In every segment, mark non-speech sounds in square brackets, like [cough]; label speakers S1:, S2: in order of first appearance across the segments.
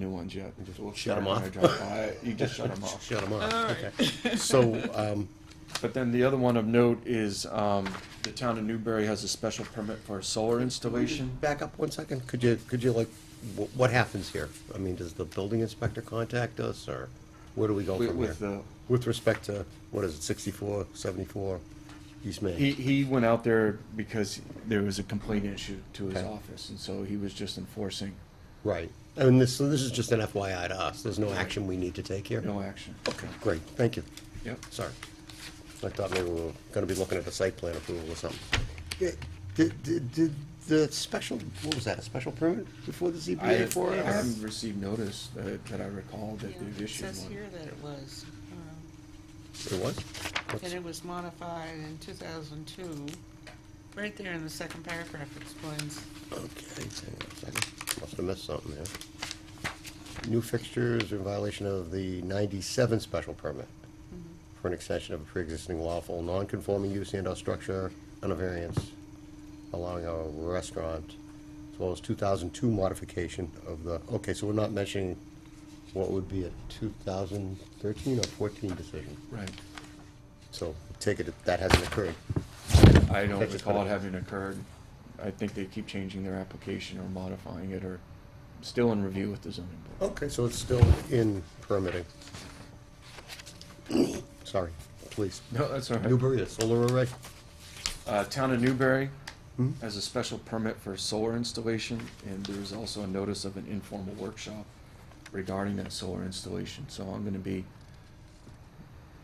S1: new ones yet. So we'll
S2: Shut 'em
S1: figure out how to
S2: off.
S1: drop by. You just shut
S2: [laughs]
S1: them off.
S2: Shut them off, okay. So, um,
S1: But then the other one of note is, um, the town of Newbury has a special permit for a solar installation.
S2: back up one second, could you, could you like, wh- what happens here? I mean, does the building inspector contact us, or where do we go
S1: With-
S2: from
S1: with
S2: here?
S1: the-
S2: With respect to, what is it, sixty-four, seventy-four, East Main?
S1: He, he went out there because there was a complaint issue to his
S2: Okay.
S1: office, and so he was just enforcing
S2: Right, and this, so this is just an FYI to us, there's no action we need to take here?
S1: no action.
S2: Okay, great, thank you.
S1: Yep.
S2: Sorry. I thought maybe we were gonna be looking at the site plan approval or something. Did, did, did the special, what was that, a special permit before the
S1: I
S2: ZBA
S1: have-
S2: for
S1: I
S2: it? or-
S1: haven't received notice that, that I recall that they've
S3: It
S1: issued
S3: says here
S1: one.
S3: that it was, um,
S2: It was?
S3: that
S2: What's-
S3: it was modified in two thousand two. Right there in the second paragraph explains,
S2: Okay, hang on a second. Must have missed something there. New fixtures in violation of the ninety-seven special permit for an extension of a pre-existing lawful non-conforming use and/or structure on a variance allowing a restaurant, as well as two thousand two modification of the, okay, so we're not mentioning what would be a two thousand thirteen or fourteen decision.
S1: Right.
S2: So take it, that hasn't occurred.
S1: I don't
S2: That's just
S1: recall
S2: what
S1: it
S2: it-
S1: having occurred. I think they keep changing their application or modifying it or still in review with the zoning board.
S2: Okay, so it's still in permitting. Sorry, please.
S1: No, that's all right.
S2: Newbury, a solar array?
S1: Uh, Town of Newbury
S2: Hmm?
S1: has a special permit for solar installation, and there's also a notice of an informal workshop regarding that solar installation. So I'm gonna be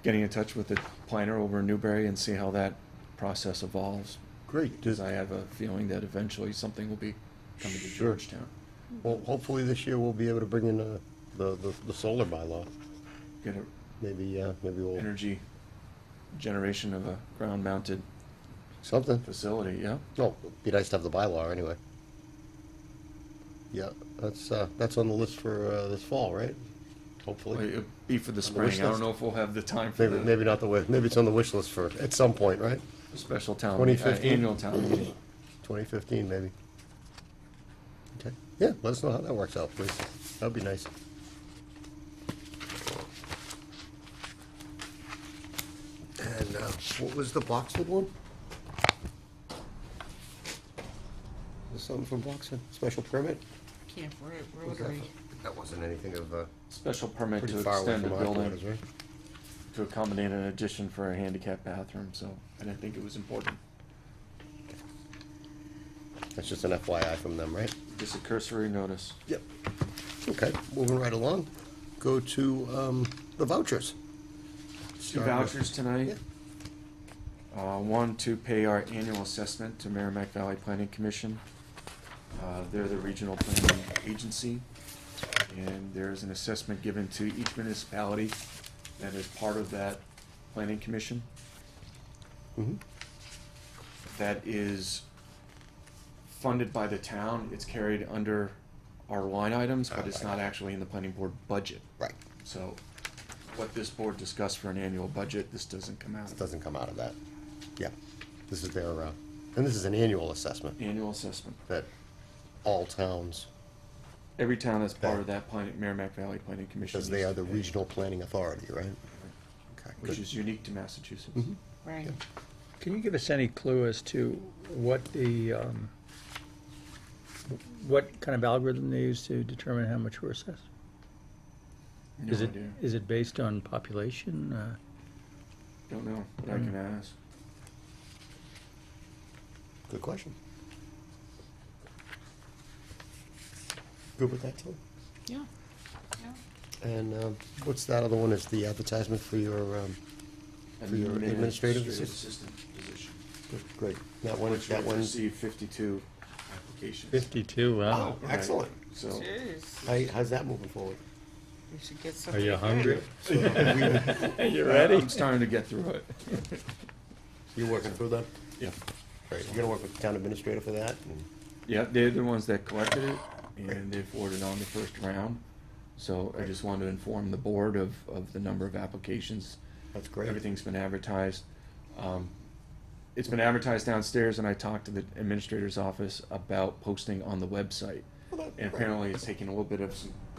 S1: getting in touch with the planner over in Newbury and see how that process evolves.
S2: Great.
S1: Because I have a feeling that eventually something will be coming to
S2: Sure.
S1: Georgetown.
S2: Well, hopefully this year we'll be able to bring in uh, the, the, the solar bylaw.
S1: Get a
S2: Maybe, uh, maybe we'll,
S1: energy generation of a ground-mounted
S2: something.
S1: facility, yeah?
S2: No, it'd be nice to have the bylaw anyway. Yeah, that's, uh, that's on the list for, uh, this fall, right?
S1: Well,
S2: Hopefully.
S1: It'd be for the
S2: the wish
S1: spring, I don't
S2: list.
S1: know if we'll have the time for
S2: Maybe,
S1: the
S2: maybe not the, wi- maybe it's on the wish list for, at some point, right?
S1: special town, meet- uh,
S2: 2015.
S1: annual town meeting.
S2: 2015, maybe. Okay, yeah, let us know how that works out, please. That'd be nice. And uh, what was the Boxwood one? Was something from Boxwood, special permit?
S3: Camp Ro- Rotary.
S2: That wasn't anything of, uh,
S1: Special permit
S2: pretty
S1: to
S2: far away
S1: extend the
S2: from our quarters,
S1: building
S2: right?
S1: to accommodate an addition for a handicap bathroom, so I didn't think it was important.
S2: That's just an FYI from them, right?
S1: Just a cursory notice.
S2: Yep. Okay, moving right along. Go to um, the vouchers.
S1: Two
S2: Start with-
S1: vouchers tonight.
S2: Yeah.
S1: Uh, one to pay our annual assessment to Merrimack Valley Planning Commission. Uh, they're the regional planning agency. And there's an assessment given to each municipality that is part of that planning commission.
S2: Mhm.
S1: That is funded by the town. It's carried under our line items, but it's not actually in the planning board budget.
S2: Right,
S1: So what this board discussed for an annual budget, this doesn't come out.
S2: It doesn't come out of that. Yeah, this is their, uh, and this is an annual assessment
S1: Annual assessment.
S2: that all towns,
S1: Every town that's part of that planning, Merrimack Valley Planning Commission.
S2: because they
S1: needs
S2: are the
S1: to pay,
S2: regional planning authority, right? Okay,
S1: Which
S2: good. Mm-hmm,
S1: is unique to Massachusetts.
S3: Right.
S4: Can you give us any clue as to what the, um, what kind of algorithm they use to determine how much we're assessed?
S2: Mm-hmm.
S1: No
S4: Is it,
S1: idea.
S4: is it based on population? Uh,
S1: Don't know, but I can
S4: Mm.
S1: ask.
S2: Good question. Good with that, too.
S3: Yeah. Yeah.
S2: And um, what's that other one, is the advertisement for your, um, For your administrative
S1: assistant position.
S2: great, that one,
S1: Which
S2: that
S1: we've
S2: one.
S1: received fifty-two applications.
S4: Fifty-two, wow.
S2: Oh, excellent.
S1: So,
S3: Jeez,
S2: How- How's that moving forward?
S3: we should get something.
S4: you
S3: good.
S1: [laughs]
S4: hungry? You
S1: uh, I'm starting to get through it.
S2: You working through that?
S1: Yeah.
S2: Great, you're gonna work with the town administrator for that? and-
S1: Yeah, they're the ones that collected it, and they forwarded on the first round. So I just wanted to inform the board of, of the number of applications.
S2: That's great.
S1: Everything's been advertised. Um, It's been advertised downstairs, and I talked to the administrator's office about posting on the website.
S2: Well, that-
S1: And apparently, it's taken a little bit of some